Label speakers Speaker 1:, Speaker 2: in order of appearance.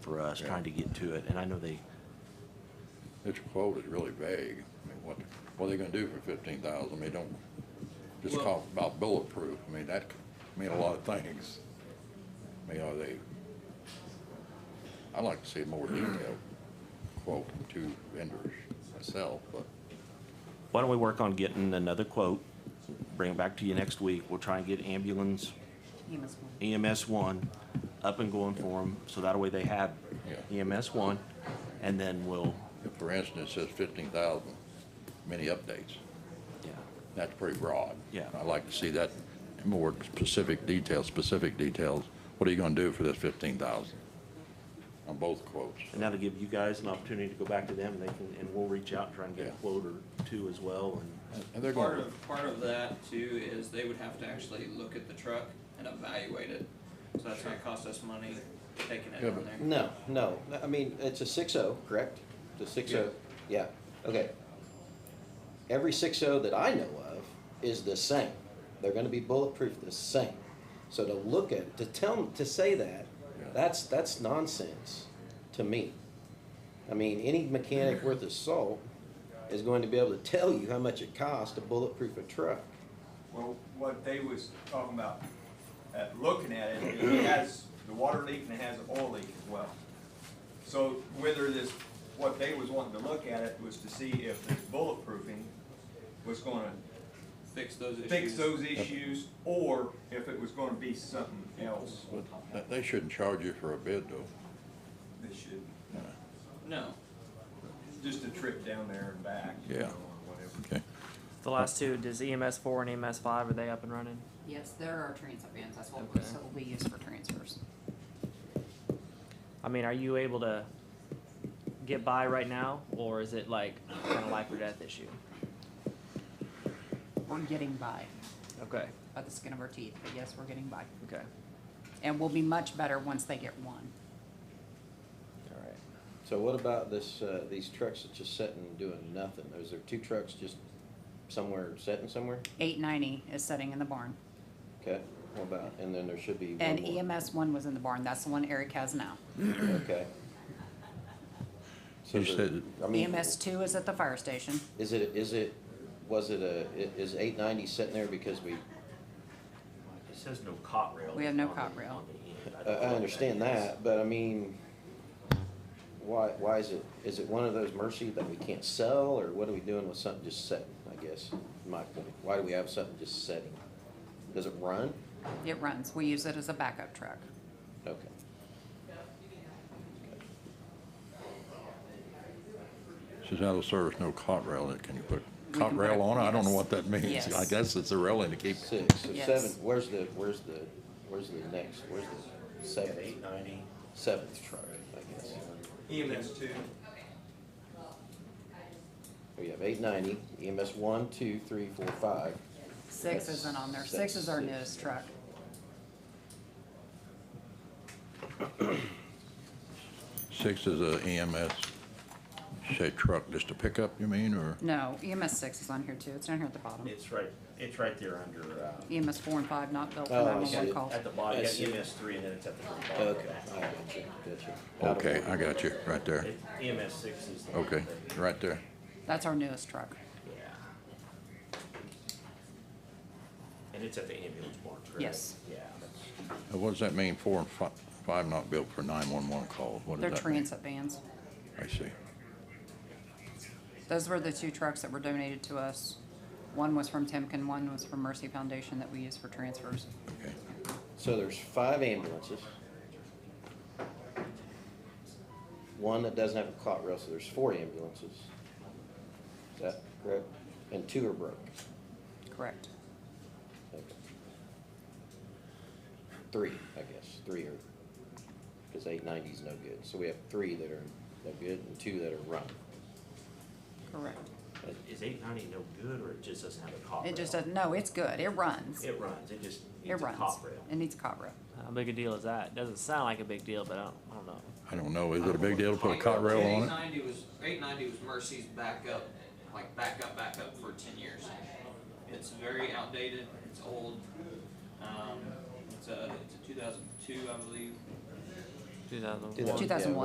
Speaker 1: for us,
Speaker 2: Yeah.
Speaker 1: trying to get to it, and I know they,
Speaker 2: This quote is really vague. I mean, what, what are they gonna do for fifteen thousand? I mean, don't, just
Speaker 3: Well-
Speaker 2: talk about bulletproof. I mean, that could mean a lot of things. I mean, are they, I'd like to see a more detailed quote from two vendors myself, but
Speaker 1: why don't we work on getting another quote? Bring it back to you next week, we'll try and get ambulance
Speaker 4: EMS one.
Speaker 1: EMS one up and going for them, so that way they have
Speaker 2: Yeah.
Speaker 1: EMS one, and then we'll,
Speaker 2: if, for instance, it says fifteen thousand, many updates.
Speaker 1: yeah,
Speaker 2: That's pretty broad.
Speaker 1: Yeah.
Speaker 2: I'd like to see that in more specific details, specific details. What are you gonna do for this fifteen thousand? On both quotes.
Speaker 1: and that'll give you guys an opportunity to go back to them, and they can, and we'll reach out and try and get a
Speaker 2: Yeah.
Speaker 1: quote or two as well, and.
Speaker 2: And they're
Speaker 3: Part
Speaker 2: gonna,
Speaker 3: of, part of that too is they would have to actually look at the truck and evaluate it. So that's gonna cost us money taking it
Speaker 2: Yeah,
Speaker 3: on
Speaker 2: but-
Speaker 3: there.
Speaker 5: No, no, I mean, it's a six oh, correct? The six oh, yeah, okay. Every six oh that I know of is the same. They're gonna be bulletproof the same. So to look at, to tell, to say that,
Speaker 2: Yeah.
Speaker 5: that's, that's nonsense to me. I mean, any mechanic worth his salt is going to be able to tell you how much it costs to bulletproof a truck.
Speaker 6: Well, what they was talking about, uh, looking at it, it has the water leak and it has the oil leak as well. So whether this, what they was wanting to look at it was to see if this bulletproofing was gonna
Speaker 3: Fix those issues.
Speaker 6: fix those issues or if it was gonna be something else.
Speaker 2: but they shouldn't charge you for a bid though.
Speaker 6: This should,
Speaker 3: No,
Speaker 6: just a trip down there and back, you know,
Speaker 2: Yeah.
Speaker 6: or whatever.
Speaker 2: Okay.
Speaker 7: The last two, does EMS four and EMS five, are they up and running?
Speaker 4: Yes, there are transfer vans, that's what we,
Speaker 7: Okay.
Speaker 4: so we use for transfers.
Speaker 7: I mean, are you able to get by right now, or is it like kind of life or death issue?
Speaker 4: We're getting by,
Speaker 7: Okay,
Speaker 4: by the skin of our teeth, but yes, we're getting by.
Speaker 7: okay,
Speaker 4: And we'll be much better once they get one.
Speaker 7: all right.
Speaker 5: So what about this, uh, these trucks that just sitting and doing nothing? Those are two trucks just somewhere, sitting somewhere?
Speaker 4: Eight ninety is sitting in the barn,
Speaker 5: Okay, what about, and then there should be
Speaker 4: and E
Speaker 5: one more.
Speaker 4: EMS one was in the barn, that's the one Eric has now.
Speaker 5: Okay. So
Speaker 2: You
Speaker 5: the-
Speaker 2: said-
Speaker 5: I mean,
Speaker 4: EMS E two is at the fire station,
Speaker 5: Is it, is it, was it a, i- is eight ninety sitting there because we,
Speaker 1: It says no cot rail.
Speaker 4: We have no on the- cot rail. on
Speaker 5: I, I understand that, but I mean, why, why is it, is it one of those mercy that we can't sell, or what are we doing with something just sitting, I guess, is my point? Why do we have something just sitting? Does it run?
Speaker 4: it runs, we use it as a backup truck.
Speaker 5: Okay.
Speaker 2: Says out of service, no cot rail, in it. can you put
Speaker 4: We
Speaker 2: cot
Speaker 4: can put
Speaker 2: rail
Speaker 4: it-
Speaker 2: on it? I don't know
Speaker 4: yes.
Speaker 2: what that means.
Speaker 4: Yes.
Speaker 2: I guess it's a railing to keep,
Speaker 5: Six, so
Speaker 4: Yes.
Speaker 5: seven, where's the, where's the, where's the next, where's the seventh,
Speaker 1: Eight ninety.
Speaker 5: seventh truck, I guess?
Speaker 6: EMS E two,
Speaker 5: We have eight ninety, EMS one, two, three, four, five.
Speaker 4: Six isn't on there, six is our
Speaker 5: Six.
Speaker 4: newest truck.
Speaker 2: six is a E EMS, say truck, just a pickup, you mean, or?
Speaker 4: No, EMS six is on here too, it's down here at the bottom.
Speaker 8: It's right, it's right there under, uh,
Speaker 4: EMS four and five not built for
Speaker 5: Oh, I
Speaker 4: nine-one-one
Speaker 5: see.
Speaker 4: calls.
Speaker 8: at the bottom, you
Speaker 5: I
Speaker 8: got
Speaker 5: see.
Speaker 8: EMS three and then it's at the very bottom.
Speaker 5: Okay, I got you, got you.
Speaker 2: Okay, I got you, right there.
Speaker 8: It- EMS six is the. one
Speaker 2: Okay,
Speaker 8: that-
Speaker 2: right there.
Speaker 4: That's our newest truck.
Speaker 8: Yeah. And it's at the ambulance barn, correct?
Speaker 4: Yes.
Speaker 8: Yeah, that's,
Speaker 2: Now, What does that mean, four and fi- five not built for nine-one-one calls? What
Speaker 4: They're
Speaker 2: does that mean?
Speaker 4: transit vans.
Speaker 2: I see.
Speaker 4: Those were the two trucks that were donated to us. One was from Timken, one was from Mercy Foundation that we use for transfers.
Speaker 2: Okay.
Speaker 5: So there's five ambulances. One that doesn't have a cot rail, so there's four ambulances. Is that correct? And two are broke.
Speaker 4: Correct.
Speaker 5: Okay. Three, I guess, three are, because eight ninety's no good, so we have three that are no good and two that are run.
Speaker 4: Correct.
Speaker 8: is eight ninety no good or it just doesn't have a cot rail?
Speaker 4: It just doesn't, no, it's good. It runs.
Speaker 8: It runs, it just
Speaker 4: It
Speaker 8: needs a
Speaker 4: runs.
Speaker 8: cot rail.
Speaker 4: It needs a cop rail.
Speaker 7: How big a deal is that? Doesn't sound like a big deal, but I don't, I don't know.
Speaker 2: I don't know, is it a big deal to put a cot rail on
Speaker 3: Eight
Speaker 2: it?
Speaker 3: ninety was, eight ninety was Mercy's backup, like backup, backup for ten years. It's very outdated, it's old, um, it's a, it's a two thousand two, I believe.
Speaker 7: Two thousand one.
Speaker 5: Do that.
Speaker 4: Two thousand one.